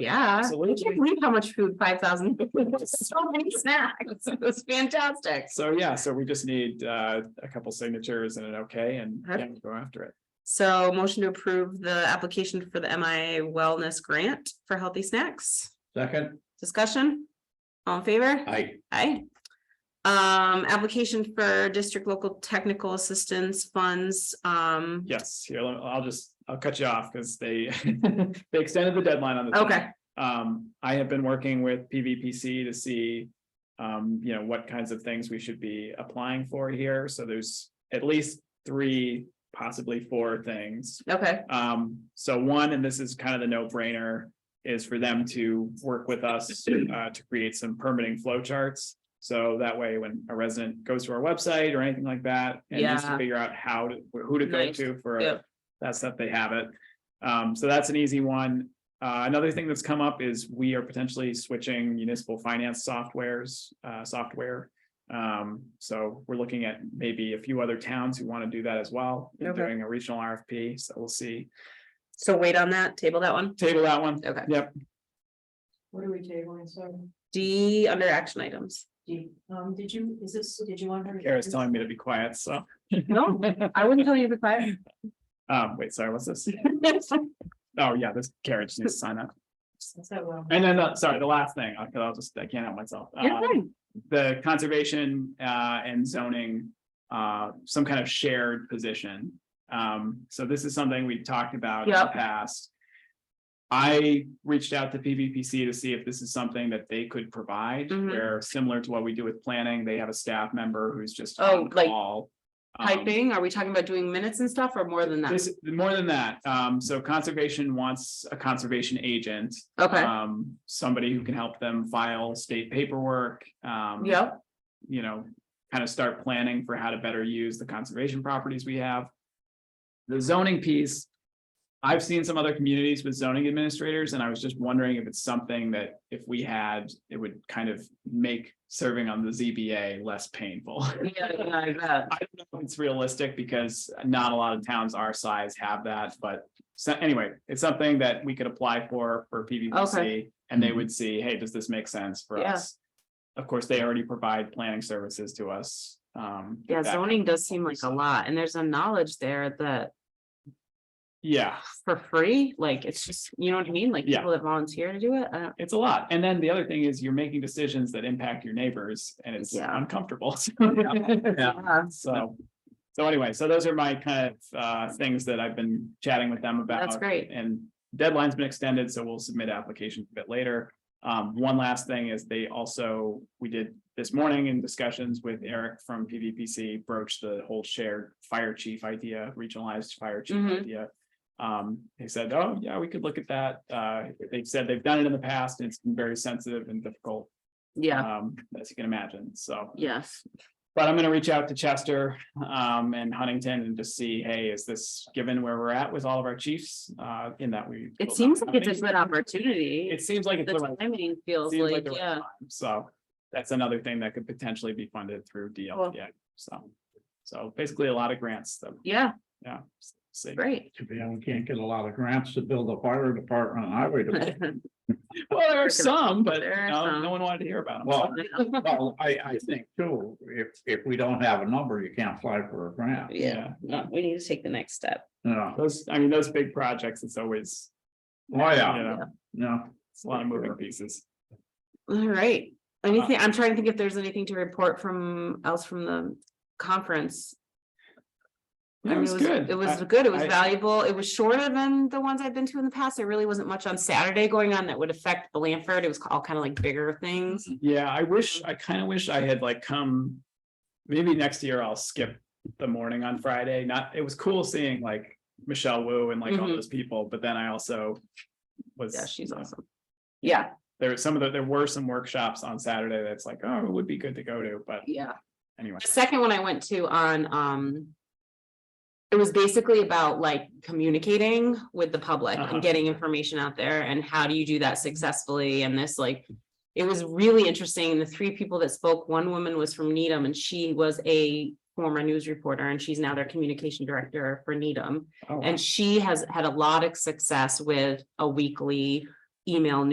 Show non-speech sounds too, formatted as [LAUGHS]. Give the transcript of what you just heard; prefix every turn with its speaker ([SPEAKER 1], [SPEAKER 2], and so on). [SPEAKER 1] Yeah, I
[SPEAKER 2] Absolutely.
[SPEAKER 1] can't believe how much food, five thousand, [LAUGHS] so many snacks, it was fantastic.
[SPEAKER 2] So yeah, so we just need uh a couple signatures and an okay and yeah,
[SPEAKER 1] Perfect.
[SPEAKER 2] go after it.
[SPEAKER 1] So motion to approve the application for the MIA Wellness Grant for Healthy Snacks,
[SPEAKER 3] Second,
[SPEAKER 1] discussion? All in favor?
[SPEAKER 3] I,
[SPEAKER 1] Aye. Um, application for district local technical assistance funds, um,
[SPEAKER 2] Yes, here, let- I'll just, I'll cut you off because they [LAUGHS] they extended the deadline on the. thing.
[SPEAKER 1] okay,
[SPEAKER 2] Um, I have been working with PVPC to see um, you know, what kinds of things we should be applying for here. So there's at least three, possibly four things
[SPEAKER 1] okay,
[SPEAKER 2] Um, so one, and this is kind of the no brainer, is for them to work with us uh to create some permitting flow charts. So that way, when a resident goes to our website or anything like that, and needs to
[SPEAKER 1] Yeah.
[SPEAKER 2] figure out how to, who to go
[SPEAKER 1] Nice.
[SPEAKER 2] to for
[SPEAKER 1] Yep.
[SPEAKER 2] that stuff, they have it. Um, so that's an easy one. Uh, another thing that's come up is we are potentially switching municipal finance softwares, uh, software. Um, so we're looking at maybe a few other towns who want to do that as well, and
[SPEAKER 1] Okay.
[SPEAKER 2] doing a regional RFP, so we'll see.
[SPEAKER 1] so wait on that, table that one,
[SPEAKER 2] Table that one.
[SPEAKER 1] okay.
[SPEAKER 2] Yep.
[SPEAKER 4] What are we tabling, so,
[SPEAKER 1] D under action items.
[SPEAKER 4] do you, um, did you, is this, did you want her? to-
[SPEAKER 2] Kara's telling me to be quiet, so,
[SPEAKER 1] No, I wouldn't tell you to be quiet.
[SPEAKER 2] um, wait, sorry, what's this? Oh, yeah, this carriage needs to sign up.
[SPEAKER 4] Is that what I'm-
[SPEAKER 2] And then, uh, sorry, the last thing, I- 'cause I'll just, I can't help myself.
[SPEAKER 1] You're
[SPEAKER 2] Uh,
[SPEAKER 1] fine.
[SPEAKER 2] The conservation, uh, and zoning, uh, some kind of shared position. Um, so this is something we've talked about in the
[SPEAKER 1] Yep.
[SPEAKER 2] past. I reached out to PVPC to see if this is something that they could provide,
[SPEAKER 1] Mhm.
[SPEAKER 2] where similar to what we do with planning, they have a staff member who's just
[SPEAKER 1] Oh,
[SPEAKER 2] on
[SPEAKER 1] like
[SPEAKER 2] call. Um,
[SPEAKER 1] Typing, are we talking about doing minutes and stuff or more than that?
[SPEAKER 2] This, more than that, um, so conservation wants a conservation agent.
[SPEAKER 1] Okay,
[SPEAKER 2] Um, somebody who can help them file state paperwork, um.
[SPEAKER 1] yeah,
[SPEAKER 2] You know, kind of start planning for how to better use the conservation properties we have. The zoning piece. I've seen some other communities with zoning administrators, and I was just wondering if it's something that if we had, it would kind of make serving on the ZBA less painful.
[SPEAKER 1] yeah, yeah, I bet.
[SPEAKER 2] I don't know if it's realistic because not a lot of towns our size have that, but so anyway, it's something that we could apply for for PVPC.
[SPEAKER 1] Okay.
[SPEAKER 2] And they would see, hey, does this make sense for
[SPEAKER 1] Yeah.
[SPEAKER 2] us? Of course, they already provide planning services to us. Um,
[SPEAKER 1] Yeah,
[SPEAKER 2] that-
[SPEAKER 1] zoning does seem like a lot, and there's a knowledge there that
[SPEAKER 2] Yeah,
[SPEAKER 1] for free, like, it's just, you know what I mean, like
[SPEAKER 2] Yeah.
[SPEAKER 1] people that volunteer to do it, uh, I don't.
[SPEAKER 2] it's a lot. And then the other thing is you're making decisions that impact your neighbors and it's
[SPEAKER 1] Yeah.
[SPEAKER 2] uncomfortable. So-
[SPEAKER 3] Yeah.
[SPEAKER 1] Yeah,
[SPEAKER 2] So, so anyway, so those are my kind of uh things that I've been chatting with them about.
[SPEAKER 1] That's great,
[SPEAKER 2] and deadline's been extended, so we'll submit applications a bit later. Um, one last thing is they also, we did this morning in discussions with Eric from PVPC broached the whole shared fire chief idea, regionalized fire chief
[SPEAKER 1] Mhm.
[SPEAKER 2] idea. Um, they said, oh, yeah, we could look at that. Uh, they've said they've done it in the past and it's been very sensitive and difficult,
[SPEAKER 1] yeah,
[SPEAKER 2] um, as you can imagine, so.
[SPEAKER 1] yes,
[SPEAKER 2] But I'm gonna reach out to Chester um and Huntington and just see, hey, is this given where we're at with all of our chiefs uh in that we.
[SPEAKER 1] it seems like it's a good
[SPEAKER 2] opportunity.
[SPEAKER 1] opportunity.
[SPEAKER 2] It seems like it's
[SPEAKER 1] The
[SPEAKER 2] the right,
[SPEAKER 1] timing feels
[SPEAKER 2] seems like
[SPEAKER 1] like,
[SPEAKER 2] the right
[SPEAKER 1] yeah,
[SPEAKER 2] time, so that's another thing that could potentially be funded through
[SPEAKER 1] Cool.
[SPEAKER 2] DLTA, so. So basically a lot of grants that,
[SPEAKER 1] yeah,
[SPEAKER 2] yeah. see.
[SPEAKER 1] great. [LAUGHS]
[SPEAKER 3] to be, we can't get a lot of grants to build a fire department, and highway department.
[SPEAKER 2] Well, there are some, but
[SPEAKER 1] There are
[SPEAKER 2] no,
[SPEAKER 1] some.
[SPEAKER 2] no one wanted to hear about them.
[SPEAKER 3] Well, well, I, I think too, if, if we don't have a number, you can't apply for a grant.
[SPEAKER 1] [LAUGHS] Yeah, no, we need to take the next step.
[SPEAKER 3] No,
[SPEAKER 2] Those, I mean, those big projects, it's always,
[SPEAKER 3] oh,
[SPEAKER 2] you
[SPEAKER 3] yeah,
[SPEAKER 2] know,
[SPEAKER 3] no.
[SPEAKER 2] it's a lot of moving pieces.
[SPEAKER 1] All right, anything, I'm trying to think if there's anything to report from, else from the conference. I
[SPEAKER 2] That
[SPEAKER 1] mean,
[SPEAKER 2] was good.
[SPEAKER 1] It
[SPEAKER 2] I-
[SPEAKER 1] was good, it was
[SPEAKER 2] I-
[SPEAKER 1] valuable, it was shorter than the ones I've been to in the past, there really wasn't much on Saturday going on that would affect Blanford, it was all kind of like bigger things.
[SPEAKER 2] Yeah, I wish, I kind of wish I had like come. Maybe next year I'll skip the morning on Friday. Not, it was cool seeing like Michelle Wu and like all
[SPEAKER 1] Mhm.
[SPEAKER 2] those people, but then I also. Was.
[SPEAKER 1] Yeah, she's
[SPEAKER 2] you know,
[SPEAKER 1] awesome. Yeah,
[SPEAKER 2] There were some of the, there were some workshops on Saturday that's like, oh, it would be good to go to, but
[SPEAKER 1] yeah.
[SPEAKER 2] anyway.
[SPEAKER 1] The second one I went to on, um. It was basically about like communicating with the public
[SPEAKER 2] Uh-huh.
[SPEAKER 1] and getting information out there and how do you do that successfully and this like. It was really interesting. The three people that spoke, one woman was from Needham and she was a former news reporter and she's now their communication director for Needham.
[SPEAKER 2] oh, wow.
[SPEAKER 1] And she has had a lot of success with a weekly email